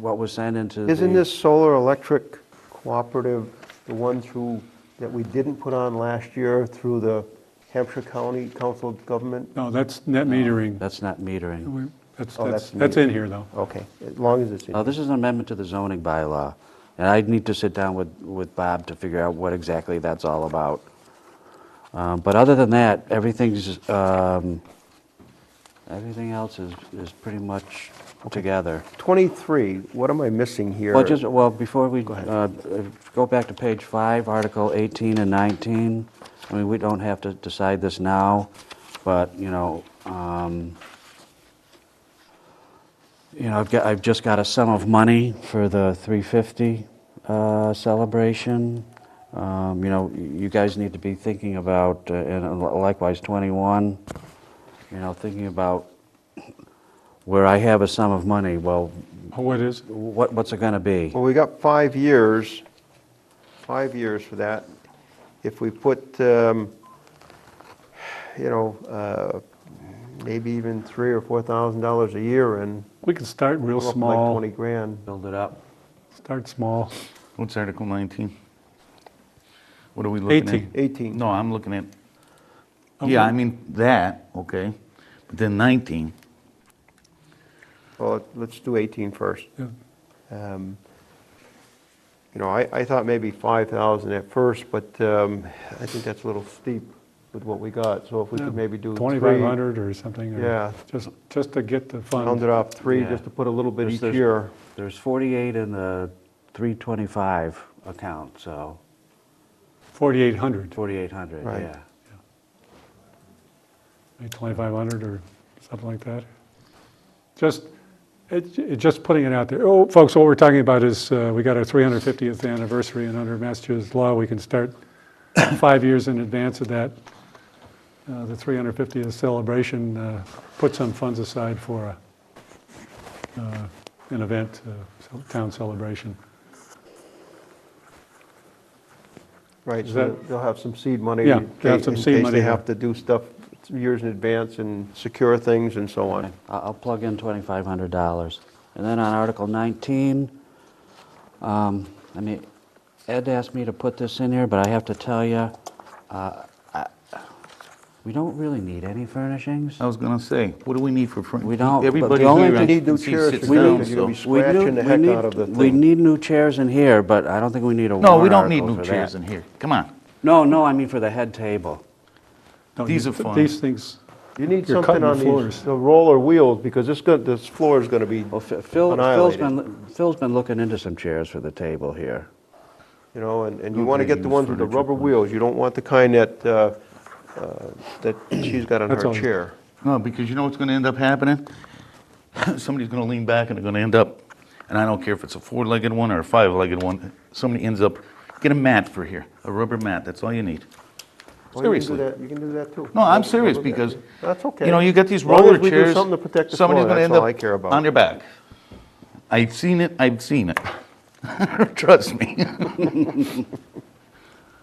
what was sent into the... Isn't this solar electric cooperative, the one through, that we didn't put on last year through the Hampshire County Council of Government? No, that's net metering. That's not metering. We- That's, Oh, that's, that's that's in here, though. Okay, as long as it's in. Uh, This is an amendment to the zoning bylaw, and I'd need to sit down with, with Bob to figure out what exactly that's all about. Um, But other than that, everything's, um, everything else is, is pretty much together. 23, what am I missing here? Well, just, well, before we, ahead. uh, if- go back to page five, Article 18 and 19. I mean, we don't have to decide this now, but, you know, um, you know, I've got, I've just got a sum of money for the 350 uh, celebration. Um, You know, y- you guys need to be thinking about, uh, and likewise 21, you know, thinking about where I have a sum of money, well, Oh, What is, what, what's it gonna be? Well, we got five years, five years for that. If we put, um, you know, uh, maybe even three or $4,000 a year in, we can start come up real with like small, 20 grand. Build it up. start small. What's Article 19? What are we looking at? 18. 18. No, I'm looking at, I'm yeah, I look- mean, that, okay, but then 19, Well, let's do 18 first. Yeah. Um, You know, I, I thought maybe 5,000 at first, but um, I think that's a little steep with what we got, so if we Yeah, could maybe do three. 2,500 or something. or Yeah. Just, just to get the Round fund. it off, three, Yeah. just to put a little bit There's- each there's- year. There's 48 in the 325 account, so 4,800, 4,800, Right. yeah. maybe 2,500 or something like that. Just, it, it- just putting it out there. Oh, folks, what we're talking about is, uh, we got our 350th anniversary, and under Massachusetts law, we can start five years in advance of that. Uh, The 350th celebration, uh, put some funds aside for a, uh, an event, uh, so- town celebration. Right, Is so that- they'll have some seed money. Yeah, in they have case- some seed In case money they there. have to do stuff years in advance and secure things and so on. I- I'll plug in $2,500. And then on Article 19, um, I mean, Ed asked me to put this in here, but I have to tell you, we don't really need any furnishings. I was gonna say, what do we need for front? We don't, but the Everybody only here, thing- I Need new can see, chairs sits for We them, down, need- you're gonna be so. we do- scratching the we heck need- out of the We thing. need new chairs in here, but I don't think we need a warrant No, we don't need article new for chairs that. in here, come on. No, no, I mean for the head table. Don't These you- are fun. These things, You need You're cutting something the on these, floors. the roller wheels, because this, go- this floor is gonna be, Well, Phil- Phil, Phil's Annihilated. been, Phil's been looking into some chairs for the table here. you know, and, and you Okay, wanna get the use ones with the furniture rubber points. wheels. You don't want the kind that, uh, uh, that she's got on That's her all. chair. No, because you know what's gonna end up happening? Somebody's gonna lean back and they're gonna end up, and I don't care if it's a four-legged one or a five-legged one, somebody ends up, get a mat for here, a rubber mat, that's all you need. Well, Oh, you can do Seriously. that- You can do that too. No, I'm That's serious okay. because, That's okay. you know, you got these As long as roller we do chairs. something to protect the Somebody's floor, gonna that's end all up I care about. On their back. I've seen it, I've seen it. Trust me.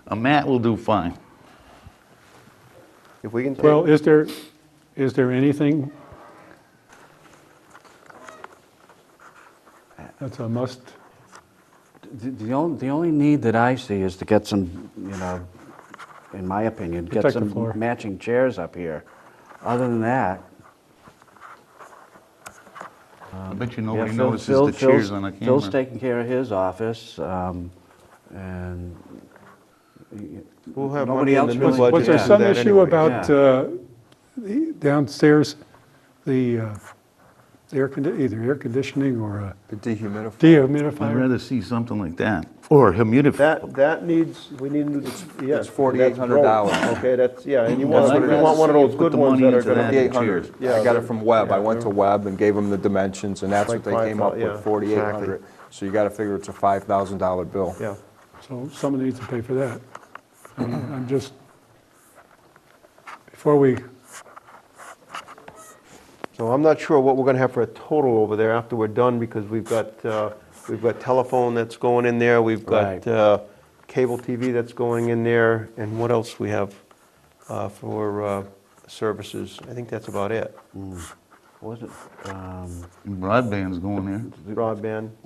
A mat will do fine. If we can take. well, is there, is there anything that's a must? The- The only, the only need that I see is to get some, you know, in my opinion, get Protect the some floor. matching chairs up here. Other than that, I bet you yeah, nobody Phil, notices the Phil, cheers on the Phil's, Phil's camera. taking care of his office, um, and We'll have Nobody money in else the new really- budget. Was there to do some that issue anyway. about Yeah. uh, the downstairs, the uh, air, condi- either air conditioning or a The dehumidifier. I'd dehumidifier? rather see something like that, or a humidifier. That, that needs, we need, to- yeah. it's $4,800. Okay, that's, yeah, and you That's want, what you it want is. one of those Put good the ones money that are into gonna that. be, Yeah, 4,800. yeah, I got it they're- from Webb. I yeah, went to they're- Webb and gave them the dimensions, and that's Like what they came up 5,000, with, yeah, 4,800. So you got to figure it's a $5,000 bill. yeah. So someone needs to pay for that. I mean, I'm just, before we, So I'm not sure what we're gonna have for a total over there after we're done, because we've got, uh, we've got telephone that's going in there, we've got Right. uh, cable TV that's going in there, and what else we have uh, for uh, services? I think that's about it. wasn't, um, um, Broadband's going there. broadband.